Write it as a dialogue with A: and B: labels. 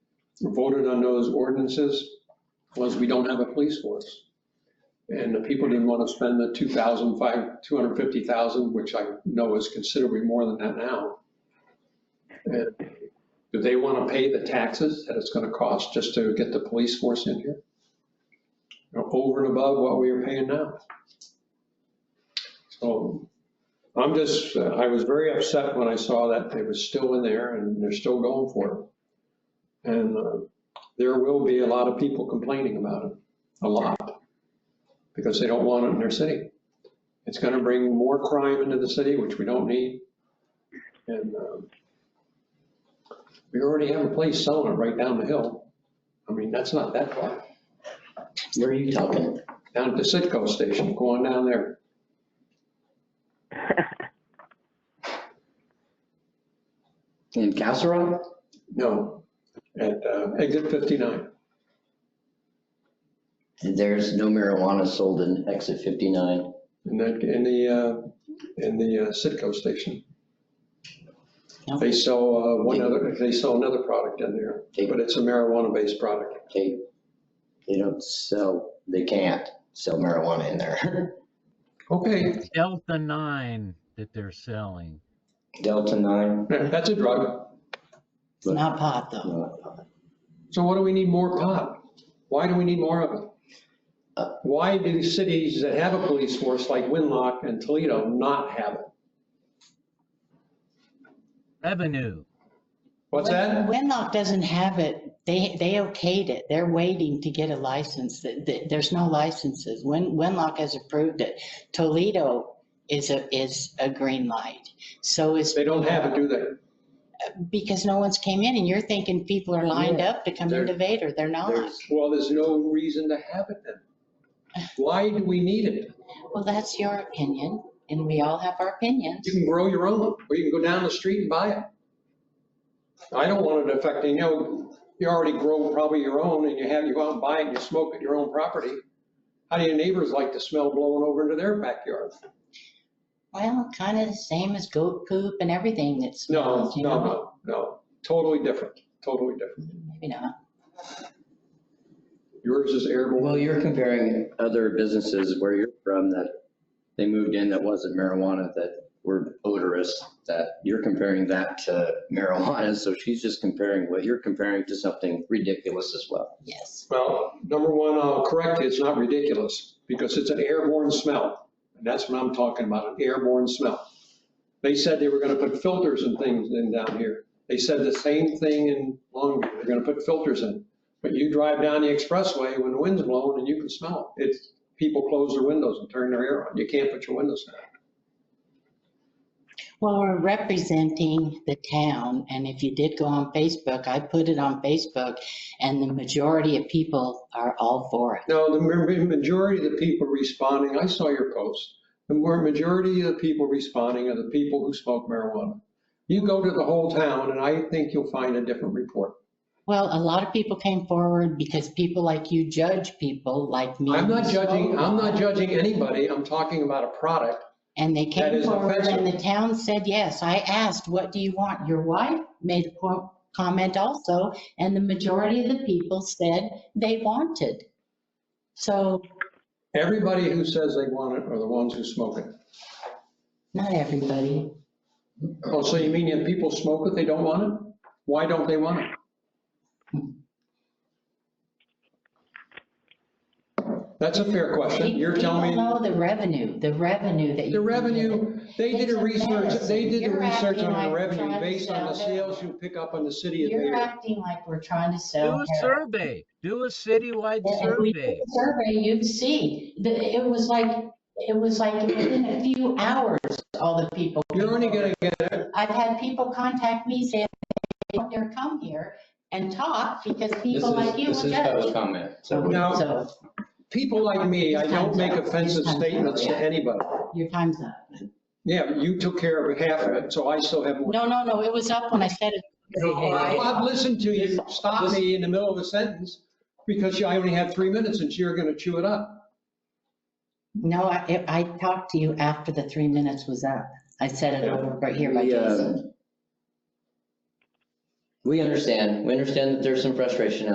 A: voted on those ordinances was we don't have a police force. And the people didn't want to spend the 2,000, 5, 250,000, which I know is considerably more than that now. And do they want to pay the taxes that it's going to cost just to get the police force in here? You know, Over and above what we are paying now. So I'm just, uh, I was very upset when I saw that it was still in there and they're still going for it. And uh, there will be a lot of people complaining about it, a lot, because they don't want it in their city. It's going to bring more crime into the city, which we don't need. And um, we already have a place selling it right down the hill. I mean, that's not that far.
B: Where are you talking?
A: Down at the Citgo station, go on down there.
B: In Casserole?
A: No, at uh, exit 59.
B: There's no marijuana sold in exit 59.
A: In that, in the, uh, in the uh, Citgo station. They sell uh, one other, they sell another product in there, but it's a marijuana-based product.
B: They, they don't sell, they can't sell marijuana in there.
A: Okay,
C: Delta nine that they're selling.
B: Delta 9?
A: yeah, that's a drug.
D: It's not pot though.
B: No.
A: So what do we need more pot? Why do we need more of it?
B: Uh.
A: Why do cities that have a police force like Winlock and Toledo not have it?
C: Revenue.
A: What's that?
D: Wenlock doesn't have it. They, they okayed it. They're waiting to get a license. Th- th- There's no licenses. Wen, Wenlock has approved it. Toledo is a, is a green light. So is,
A: They don't have it, do they?
D: because no one's came in and you're thinking people are lined up to come
A: They're-
D: into Vader. They're not.
B: There's,
A: Well, there's no reason to have it then. Why do we need it?
D: Well, that's your opinion and we all have our opinions.
A: You can grow your own, or you can go down the street and buy it. I don't want it affecting, you know, you already grow probably your own and you have, you go out and buy it and you smoke at your own property. How do your neighbors like the smell blowing over into their backyard?
D: Well, kind of the same as goat poop and everything that
A: No,
D: smells, you
A: no,
D: know?
A: no, no, totally different, totally different.
D: Maybe not.
A: Yours is airborne.
B: well, you're comparing other businesses where you're from that they moved in that wasn't marijuana, that were odorous, that you're comparing that to marijuana. So she's just comparing what you're comparing to something ridiculous as well.
D: Yes.
A: Well, number one, I'll correct you, it's not ridiculous, because it's an airborne smell. And that's what I'm talking about, an airborne smell. They said they were gonna put filters and things in down here. They said the same thing in Longview, they're gonna put filters in. But you drive down the expressway when the wind's blowing and you can smell it. It's, people close their windows and turn their air on, you can't put your windows down.
D: Well, we're representing the town, and if you did go on Facebook, I put it on Facebook, and the majority of people are all for it.
A: No, the ma- majority of the people responding, I saw your post, the more majority of the people responding are the people who smoke marijuana. You go to the whole town and I think you'll find a different report.
D: Well, a lot of people came forward because people like you judge people like me.
A: I'm not
D: who
A: judging,
D: smoke.
A: I'm not judging anybody. I'm talking about a product.
D: And they
A: That
D: came
A: is
D: forward,
A: offensive.
D: and the town said yes. I asked, what do you want? Your wife made a co- comment also, and the majority of the people said they wanted. So,
A: Everybody who says they want it are the ones who smoke it.
D: not everybody.
A: Oh, so you mean if people smoke it, they don't want it? Why don't they want it? That's a fair question. You're telling me.
D: People know the revenue, the revenue that you.
A: The
D: can get.
A: revenue, they did a research, they did the
D: You're
A: research
D: acting
A: on
D: like
A: the revenue
D: John
A: based on the
D: Snow.
A: sales you pick up on the city of
D: You're
A: Vader.
D: acting like we're trying to
C: Do
D: sell
C: a
D: heroin.
C: survey. Do a citywide
D: If we did
C: survey.
D: a survey, you'd see that it was like, it was like within a few hours, all the people.
A: You're only gonna get,
D: I've had people contact me saying they don't dare come here and talk because people like you will judge.
B: comment.
D: So,
A: Now-
D: so
A: people like me, I don't make offensive statements to anybody.
D: your time's up.
A: Yeah, but you took care of half of it, so I still have more.
D: No, no, no, it was up when I said it.
A: Well, I've listened to you stop me in the middle of a sentence because I only had three minutes and you're gonna chew it up.
D: No, I, I talked to you after the three minutes was up. I said it over right here by
B: The, uh,
D: Jason.
E: We understand, we understand that there's some frustration out